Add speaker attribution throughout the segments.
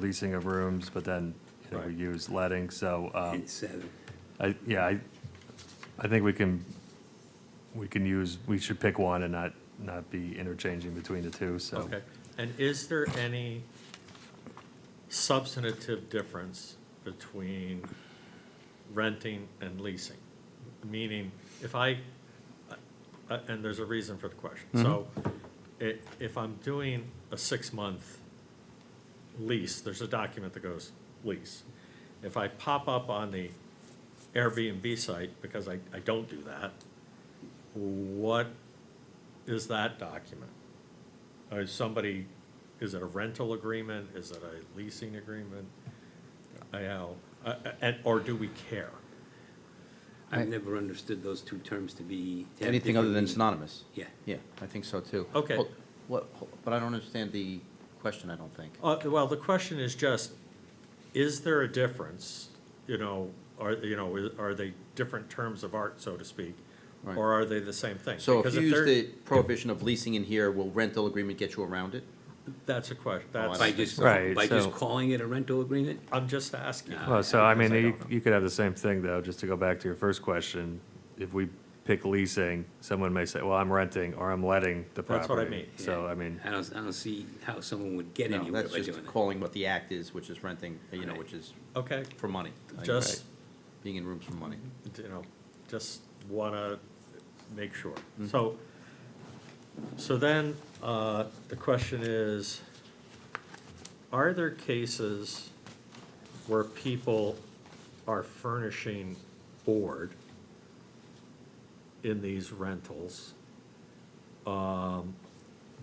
Speaker 1: leasing of rooms, but then, you know, we
Speaker 2: Right.
Speaker 1: use letting, so, um,
Speaker 2: It's seven.
Speaker 1: I, yeah, I, I think we can, we can use, we should pick one and not, not be interchanging between the two, so.
Speaker 3: Okay, and is there any substantive difference between renting and leasing? Meaning, if I, uh, and there's a reason for the question. So i- if I'm doing a six-month lease, there's a document that goes lease. If I pop up on the Airbnb site, because I, I don't do that, what is that document? Is Uh, somebody, is it a rental agreement? Is it a leasing agreement? I know, uh, uh, and, or do we care?
Speaker 2: I've never understood those two terms to be. to have
Speaker 4: Anything other than
Speaker 2: different meanings.
Speaker 4: synonymous?
Speaker 2: Yeah.
Speaker 4: Yeah, I think so too.
Speaker 3: Okay.
Speaker 4: Well, What, but I don't understand the question, I don't think.
Speaker 3: Uh, well, the question is just, is there a difference? You know, are, you know, i- are they different terms of art, so to speak?
Speaker 4: Right.
Speaker 3: Or are they the same thing?
Speaker 4: So if
Speaker 3: Because
Speaker 4: you use
Speaker 3: they're-
Speaker 4: the prohibition of leasing in here, will rental agreement get you around it?
Speaker 3: That's a question,
Speaker 1: Oh,
Speaker 4: I
Speaker 3: that's,
Speaker 2: By just,
Speaker 1: Right,
Speaker 2: by just
Speaker 1: so-
Speaker 2: calling it a rental agreement?
Speaker 3: I'm just asking.
Speaker 1: Well, so I mean,
Speaker 3: because
Speaker 1: you,
Speaker 3: don't know.
Speaker 1: you could have the same thing though, just to go back to your first question. If we pick leasing, someone may say, well, I'm renting or I'm letting the property.
Speaker 3: That's what I mean.
Speaker 1: So, I mean,
Speaker 2: I don't, I don't see how someone would get
Speaker 4: No,
Speaker 2: anywhere
Speaker 4: that's
Speaker 2: by doing
Speaker 4: just
Speaker 2: it.
Speaker 4: calling what the act is, which is renting, you know,
Speaker 2: Right.
Speaker 4: which is
Speaker 3: Okay,
Speaker 4: for money.
Speaker 3: just,
Speaker 4: Being in rooms for money.
Speaker 3: you know, just wanna make sure. So, so then, uh, the question is, are there cases where people are furnishing board in these rentals? Um,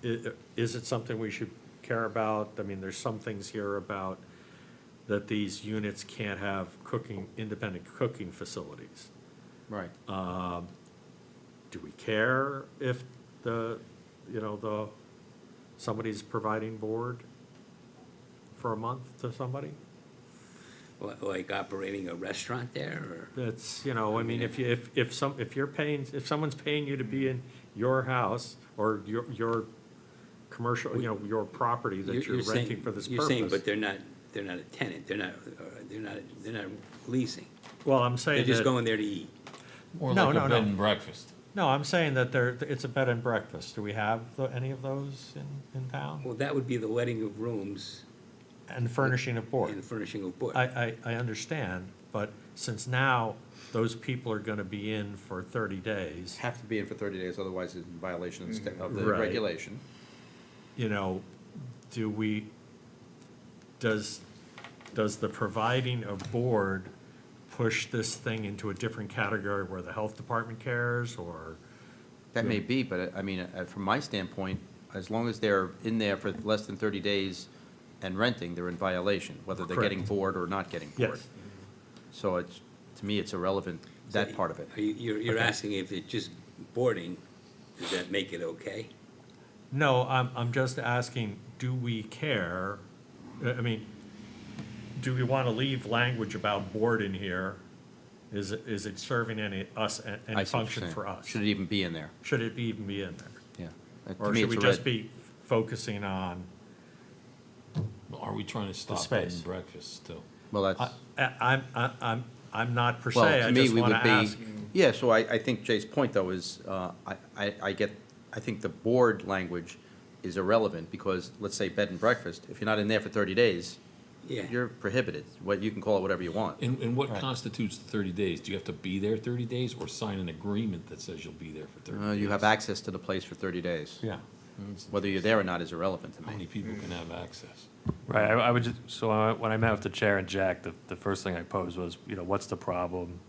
Speaker 3: i- is it something we should care about? I mean, there's some things here about that these units can't have cooking, independent cooking facilities.
Speaker 4: Right.
Speaker 3: Do we care if the, you know, the, somebody's providing board for a month to somebody?
Speaker 2: Li- Like operating a restaurant there, or?
Speaker 3: That's, you know, I mean, if you, if, if some, if you're paying, if someone's paying you to be in your house or your, your commercial, you know, your property that you're
Speaker 2: saying-
Speaker 3: renting for this
Speaker 2: You're saying, but
Speaker 3: purpose.
Speaker 2: they're not, they're not a tenant, they're not, uh, they're not, they're not leasing.
Speaker 3: Well, I'm
Speaker 2: They're
Speaker 3: saying
Speaker 2: just
Speaker 3: that,
Speaker 2: going there to eat.
Speaker 5: Or
Speaker 3: No,
Speaker 5: like
Speaker 3: no,
Speaker 5: a
Speaker 3: no.
Speaker 5: bed and breakfast.
Speaker 3: no, I'm saying that there, it's a bed and breakfast. Do we have the- any of those in, in town?
Speaker 2: Well, that would be the letting of rooms
Speaker 3: And furnishing of board.
Speaker 2: and the furnishing of board.
Speaker 3: I, I, I understand, but since now those people are gonna be in for thirty days,
Speaker 4: Have to be in for thirty days, otherwise it's in violation of sta- of the
Speaker 3: Mm-hmm. Right.
Speaker 4: regulation.
Speaker 3: you know, do we, does, does the providing of board push this thing into a different category where the health department cares or?
Speaker 4: That may be, but I I mean, uh, from my standpoint, as long as they're in there for less than thirty days and renting, they're in violation, whether they're getting
Speaker 3: Correct.
Speaker 4: bored or not getting bored. So it's, to me, it's irrelevant, that part of it.
Speaker 2: Are you- You're, you're asking if it's just boarding, does that make it okay?
Speaker 3: No, I'm, I'm just asking, do we care? Uh, I I mean, do we want to leave language about board in here? Is it, is it serving any, us, a-
Speaker 4: I
Speaker 3: any
Speaker 4: see what you're
Speaker 3: function
Speaker 4: saying.
Speaker 3: for us?
Speaker 4: Should it even be in there?
Speaker 3: Should it be even be in there?
Speaker 4: Yeah. Uh, to
Speaker 3: Or
Speaker 4: me,
Speaker 3: should we
Speaker 4: it's a
Speaker 3: just
Speaker 4: red.
Speaker 3: be focusing on,
Speaker 5: Are we trying to stop bed
Speaker 3: space.
Speaker 5: and breakfast still?
Speaker 4: Well,
Speaker 3: I,
Speaker 4: that's,
Speaker 3: I- I'm, I- I'm, I'm not per
Speaker 4: well,
Speaker 3: se,
Speaker 4: to
Speaker 3: I
Speaker 4: me,
Speaker 3: just
Speaker 4: we
Speaker 3: want
Speaker 4: would
Speaker 3: to ask.
Speaker 4: be, yeah, so I, I think Jay's point, though, is, uh, I, I, I get, I think the board language is irrelevant, because, let's say, bed and breakfast, if you're not in there for thirty days,
Speaker 2: Yeah.
Speaker 4: you're prohibited, what, you can call it whatever you want.
Speaker 5: And, and what constitutes the thirty days? Do you have to be there thirty days or sign an agreement that says you'll be there for thirty?
Speaker 4: Uh, You have access to the place for thirty days.
Speaker 3: Yeah.
Speaker 4: Whether you're there or not is irrelevant to
Speaker 5: How many
Speaker 4: me.
Speaker 5: people can have access?
Speaker 1: right, I, I would just, so I- when I met with the chair and Jack, the, the first thing I posed was, you know, what's the problem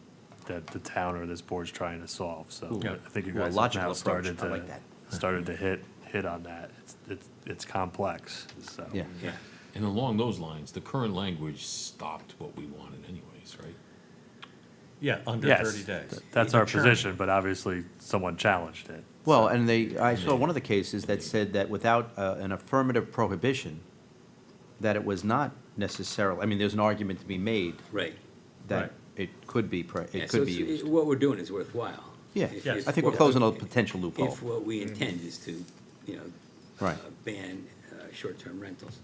Speaker 1: that the town or this board's trying to solve? So
Speaker 3: Yeah.
Speaker 1: I think you
Speaker 4: Ooh, a
Speaker 1: guys have
Speaker 4: logical
Speaker 1: now
Speaker 4: approach.
Speaker 1: started
Speaker 4: I
Speaker 1: to,
Speaker 4: like that.
Speaker 1: started to hit, hit on that. It's, it's, it's complex, so.
Speaker 4: Yeah.
Speaker 2: Yeah.
Speaker 5: And along those lines, the current language stopped what we wanted anyways, right?
Speaker 3: Yeah, under
Speaker 1: Yes,
Speaker 3: 30 days.
Speaker 1: th- That's our
Speaker 3: Sure.
Speaker 1: position, but obviously someone challenged it.
Speaker 4: Well, and they, I saw one of the cases that said that without uh, an affirmative prohibition, that it was not necessarily, I mean, there's an argument to be made
Speaker 2: Right.
Speaker 3: Right.
Speaker 4: that it could be, pro-
Speaker 2: Yeah,
Speaker 4: it
Speaker 2: so
Speaker 4: could be
Speaker 2: it's-
Speaker 4: used.
Speaker 2: it- What we're doing is worthwhile.
Speaker 4: Yeah,
Speaker 2: If-
Speaker 3: Yes.
Speaker 2: if
Speaker 4: I think we're
Speaker 2: what-
Speaker 4: closing a potential loophole.
Speaker 2: If what we intend is to, you know.
Speaker 4: Right.
Speaker 2: uh, Ban uh, short-term rentals.